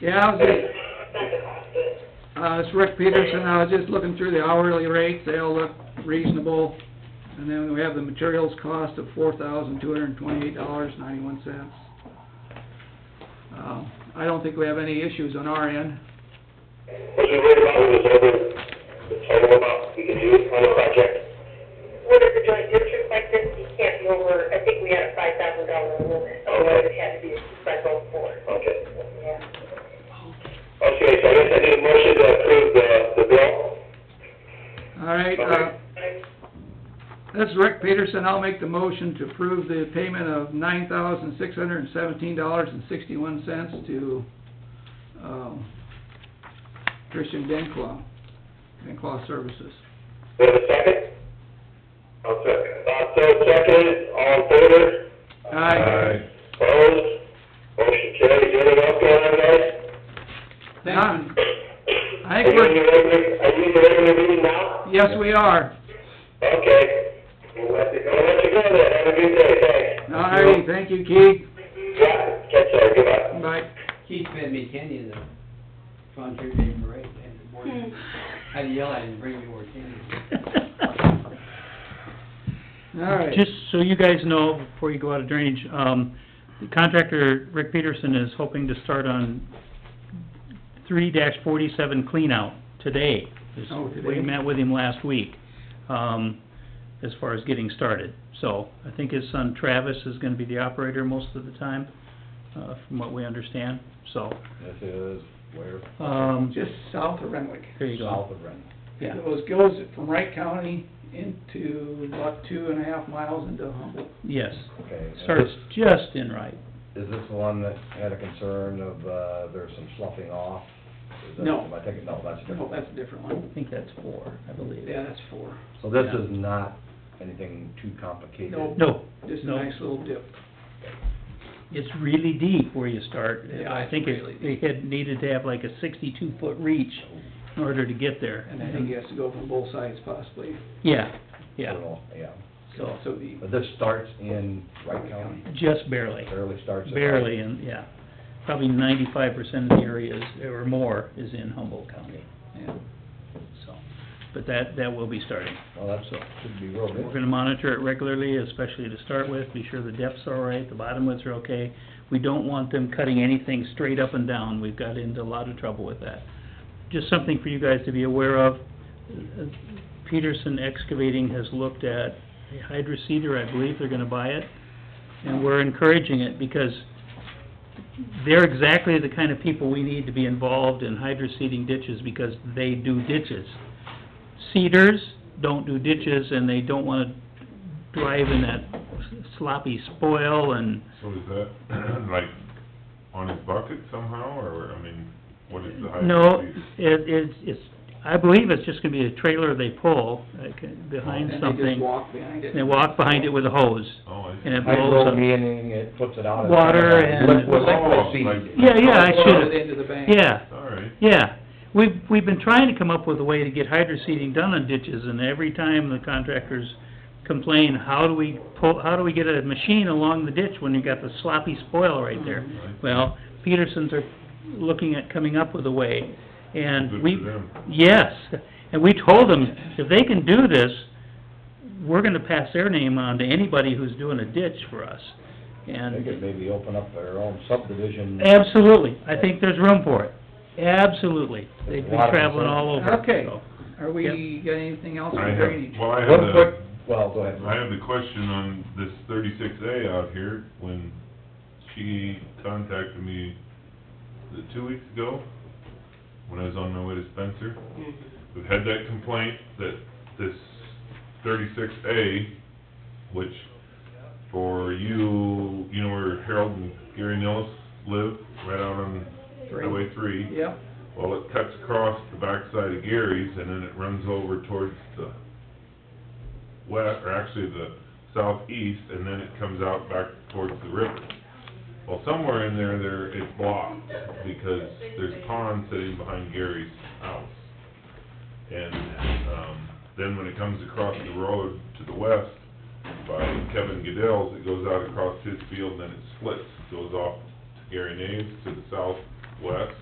Yeah, I was just, Well, uh, it's Rick Peterson, I was just looking through the hourly rates, they all look reasonable. And then we have the materials cost of four thousand two hundred and twenty-eight dollars, ninety-one cents. Uh, I don't think we have any issues on our end. you worried about when this over, talking about we can do on the project? What is a joint district like this, you can't be over, I think we had a five thousand dollar limit, so it had to be by both boards. Okay. Yeah. Okay, so I guess I need a motion to approve the, the bill. All right, uh, Okay. This is Rick Peterson, I'll make the motion to approve the payment of nine thousand six hundred and seventeen dollars and sixty-one cents to, um, Christian Denclaw, Denclaw Services. We have a second? I'll second. Bob Phil seconded, all in favor? Aye. Opposed? Motion carries. Anything else going on tonight? None. I Are think you in we're- your regular, are you in your regular meeting now? Yes, we are. Okay. We'll let you go, We'll let you go then. Have a good day, thanks. All righty, thank you, Keith. Yeah, catch you later, goodbye. Bye. Keith made me candy in the volunteer day parade, and the morning, I had to yell at him, bring me more candy. All right. Just so you guys know, before you go out of drainage, um, the contractor, Rick Peterson, is hoping to start on three forty-seven cleanout today. Is- Oh, today? We met with him last week, um, as far as getting started. So, I think his son Travis is gonna be the operator most of the time, uh, from what we understand, so, This is where, um, Just south of Renwick. there you south go. of Renton. Yeah. It goes, goes from Wright County into about two and a half miles into Humboldt. Yes, Okay. and starts just in right. this- Is this the one that had a concern of, uh, there's some sloughing off? Is that- No. Am I taking, no, that's No, different. that's a different one. I think that's four, I believe. Yeah, that's four. So this Yeah. is not anything too complicated? No. No, Just a No. nice little dip. It's really deep where you start. Yeah, I it's think really it, they had needed to have like a sixty-two foot reach in order to get there. And I think he has to go from both sides possibly, Yeah, yeah, Little, Yeah, so, so the, but this starts in Wright County, just barely, barely starts. in- barely, and, yeah. Probably ninety-five percent of the area is, or more, is in Humboldt County, yeah. so. But that, that will be starting. Well, that's, So- should be real We're good. gonna monitor it regularly, especially to start with, be sure the depths are all right, the bottom widths are okay. We don't want them cutting anything straight up and down, we've got into a lot of trouble with that. Just something for you guys to be aware of, Peterson Excavating has looked at a hydroseeder, I believe they're gonna buy it, and we're encouraging it because they're exactly the kind of people we need to be involved in hydroseeding ditches because they do ditches. Cedars don't do ditches and they don't wanna drive in that sloppy spoil and So is that, like, on his bucket somehow, or, I mean, what is the height? No, it, it's, it's, I believe it's just gonna be a trailer they pull, like, And they behind just something. walk behind it. They walk behind it with a hose, Oh, I see. and it blows Hydro up. meaning it puts it out. as Water kind of a and- Liquid, Oh, liquid seed. like- Yeah, yeah, I Blow it should've, Into the bank. yeah, All right. yeah. We've, we've been trying to come up with a way to get hydroseeding done on ditches, and every time the contractors complain, how do we pull, how do we get a machine along the ditch when you got the sloppy spoil right there? Right. Well, Petersons are looking at coming up with a way, Good and for we... them. Yes, and we told them, if they can do this, we're gonna pass their name on to anybody who's doing a ditch for us. They could And, maybe open up their own subdivision. absolutely, I think there's room for it, absolutely. They've There's a lot been of traveling concern. all over. Okay. so. Are we, got anything else I on drainage? have, well, I had Real quick, the, well, go ahead. I had the question on this thirty-six A out here, when she contacted me, was it two weeks ago? When I was on my way to Spencer. We've had that complaint that this thirty-six A, which for you, you know where Harold and Gary Nellis live, right out on Three. Highway three? Yep, Well, it cuts across the backside of Gary's and then it runs over towards the west, or actually the southeast, and then it comes out back towards the river. Well, somewhere in there, there, it's blocked because there's a pond sitting behind Gary's house. And, um, then when it comes across the road to the west by Kevin Goodell's, it goes out across his field, then it splits, goes off to Gary Nave's to the southwest,